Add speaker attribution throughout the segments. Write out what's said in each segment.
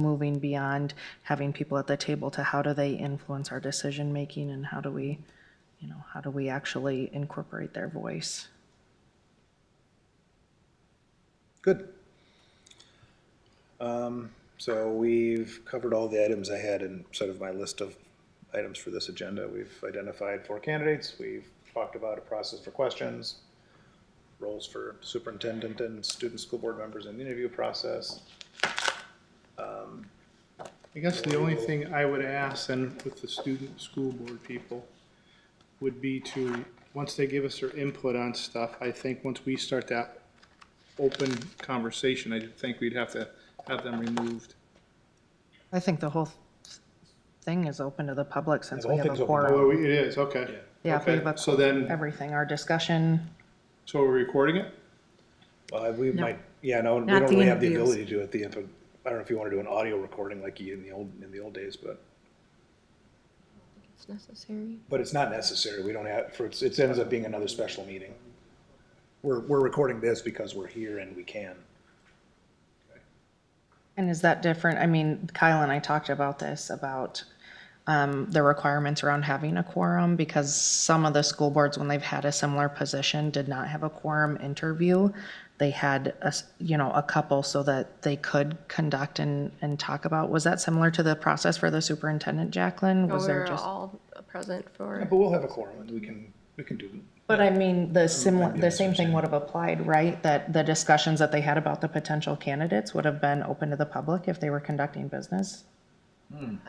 Speaker 1: moving beyond having people at the table to how do they influence our decision-making and how do we, you know, how do we actually incorporate their voice?
Speaker 2: Good. Um, So we've covered all the items I had in sort of my list of items for this agenda. We've identified four candidates, we've talked about a process for questions, roles for superintendent and student school board members in the interview process.
Speaker 3: I guess the only thing I would ask then with the student, school board people would be to, once they give us their input on stuff, I think once we start that open conversation, I think we'd have to have them removed.
Speaker 1: I think the whole thing is open to the public since
Speaker 2: The
Speaker 1: we
Speaker 2: whole
Speaker 1: have
Speaker 2: thing's
Speaker 1: a
Speaker 2: open.
Speaker 1: quorum.
Speaker 3: Oh, it is, okay.
Speaker 1: Yeah, if we
Speaker 3: Okay,
Speaker 1: have a
Speaker 3: So then,
Speaker 1: Everything, our discussion,
Speaker 3: so we're recording it?
Speaker 2: Uh, we might, yeah, no, we
Speaker 4: Not
Speaker 2: don't
Speaker 4: the
Speaker 2: really have the
Speaker 4: interviews.
Speaker 2: ability to do it, the, info- I don't know if you want to do an audio recording like you in the old, in the old days, but,
Speaker 4: It's necessary.
Speaker 2: but it's not necessary. We don't have, for, it's- it ends up being another special meeting. We're, we're recording this because we're here and we can.
Speaker 1: And is that different? I mean, Kyle and I talked about this, about um, the requirements around having a quorum, because some of the school boards, when they've had a similar position, did not have a quorum interview. They had, a s- you know, a couple so that they could conduct and, and talk about. Was that similar to the process for the superintendent, Jacqueline?
Speaker 4: We
Speaker 1: Was there
Speaker 4: were
Speaker 1: just?
Speaker 4: all present
Speaker 2: Yeah,
Speaker 4: for,
Speaker 2: But we'll have a quorum and we can, we can do it.
Speaker 1: But I mean, the similar, the
Speaker 2: that's
Speaker 1: same thing would have applied, right? That the discussions that they had about the potential candidates would have been open to the public if they were conducting business?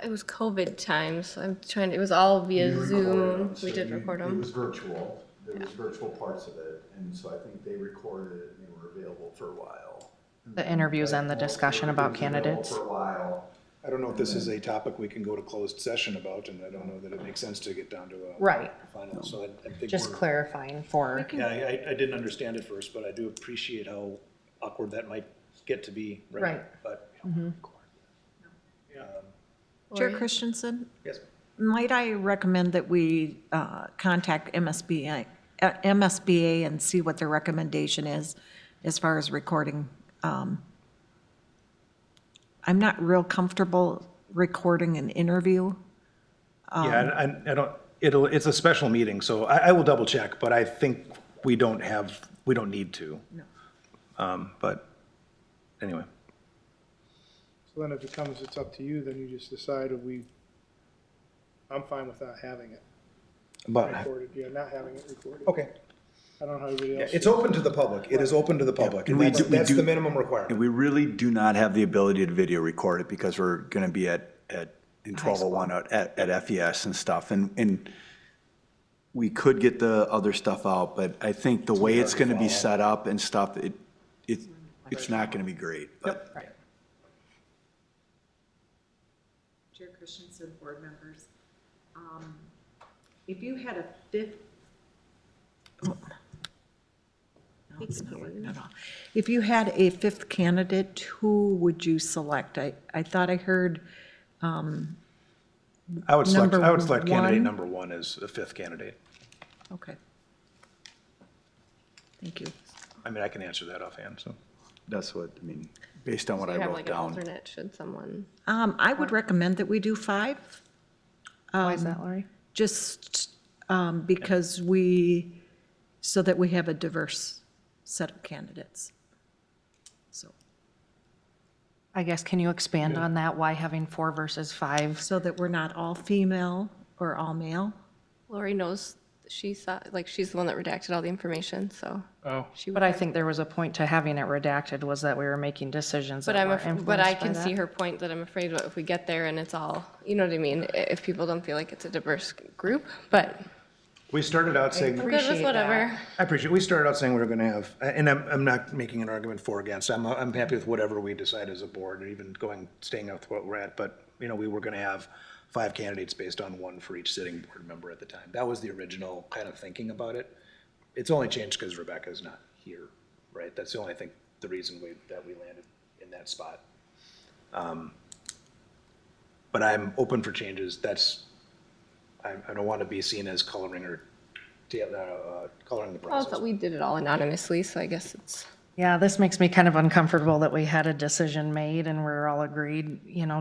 Speaker 4: it was COVID times, so I'm trying, it was all via
Speaker 5: We recorded
Speaker 4: Zoom.
Speaker 5: 'em, so
Speaker 4: We did
Speaker 5: you-
Speaker 4: record
Speaker 5: It
Speaker 4: them.
Speaker 5: was virtual, there was virtual parts of it, and so I think they recorded it and they were available for a while.
Speaker 1: The interviews and the
Speaker 5: Well,
Speaker 1: discussion
Speaker 5: they were
Speaker 1: about
Speaker 5: available
Speaker 1: candidates?
Speaker 5: For a while,
Speaker 2: I don't know if this is a topic we can go to closed session about, and I don't know that it makes sense to get down to a.
Speaker 1: Right.
Speaker 2: Final, so I, I think.
Speaker 1: Just
Speaker 2: we're-
Speaker 1: clarifying for,
Speaker 2: Yeah, I, I- I didn't understand it first, but I do appreciate how awkward that might get to be, right?
Speaker 1: Right. Mm-hmm.
Speaker 2: But.
Speaker 6: Chair
Speaker 4: Lori?
Speaker 6: Christensen,
Speaker 2: Yes.
Speaker 6: might I recommend that we uh, contact MSBA, uh, MSBA and see what their recommendation is as far as recording? um, I'm not real comfortable recording an interview. Um,
Speaker 2: Yeah, and I, I don't, it'll, it's a special meeting, so I, I will double check, but I think we don't have, we don't need to. No. Um, but, anyway.
Speaker 3: So then if it comes, it's up to you, then you just decide if we, I'm fine with not having it
Speaker 2: But,
Speaker 3: recorded, yeah, not having it recorded.
Speaker 2: okay,
Speaker 3: I don't know how everybody else.
Speaker 2: it's open to the public, it is open to the public, and
Speaker 5: we
Speaker 2: that's,
Speaker 5: do- we
Speaker 2: that's
Speaker 5: do-
Speaker 2: the minimum
Speaker 5: and
Speaker 2: requirement.
Speaker 5: we really do not have the ability to video record it because we're gonna be at, at, in twelve oh one at, at FES and stuff, and, and we could get the other stuff out, but I think the way it's gonna be set up and stuff, it, it, it's not gonna be great, but.
Speaker 7: Chair Christensen, board members, um, if you had a fif-
Speaker 6: oh, No, it's not working at all. If you had a fifth candidate, who would you select? I, I thought I heard,
Speaker 2: I would select,
Speaker 6: Number
Speaker 2: I would select candidate
Speaker 6: one.
Speaker 2: number one as the fifth candidate.
Speaker 6: okay. Thank you.
Speaker 2: I mean, I can answer that offhand, so.
Speaker 5: That's what, I mean, based on what
Speaker 4: We
Speaker 5: I
Speaker 4: have
Speaker 5: wrote
Speaker 4: like an
Speaker 5: down.
Speaker 4: alternate, should someone,
Speaker 6: Um, I would recommend that we do five.
Speaker 1: why is that, Lori?
Speaker 6: just um, because we, so that we have a diverse set of candidates. So,
Speaker 1: I guess, can you expand on that? Why having four versus five?
Speaker 6: so that we're not all female or all male.
Speaker 4: Lori knows, she saw, like, she's the one that redacted all the information, so.
Speaker 3: Oh.
Speaker 4: She,
Speaker 1: But I think there was a point to having it redacted was that we were making decisions
Speaker 4: but
Speaker 1: that
Speaker 4: I'm,
Speaker 1: were
Speaker 4: af- but I
Speaker 1: influenced by
Speaker 4: can see
Speaker 1: that.
Speaker 4: her point that I'm afraid what if we get there and it's all, you know what I mean? i- If people don't feel like it's a diverse group, but
Speaker 2: We started out saying.
Speaker 4: I'm good with
Speaker 1: Appreciate that.
Speaker 4: whatever.
Speaker 2: I appreciate, we started out saying we were gonna have, and I'm, I'm not making an argument for or against, I'm, I'm happy with whatever we decide as a board, or even going, staying up with what we're at, but, you know, we were gonna have five candidates based on one for each sitting board member at the time. That was the original kind of thinking about it. It's only changed because Rebecca's not here, right? That's the only, I think, the reason we, that we landed in that spot. Um, But I'm open for changes, that's, I, I don't wanna be seen as coloring or, ta- uh, coloring the
Speaker 4: Well,
Speaker 2: process.
Speaker 4: but we did it all anonymously, so I guess it's,
Speaker 1: Yeah, this makes me kind of uncomfortable that we had a decision made and we're all agreed, you know,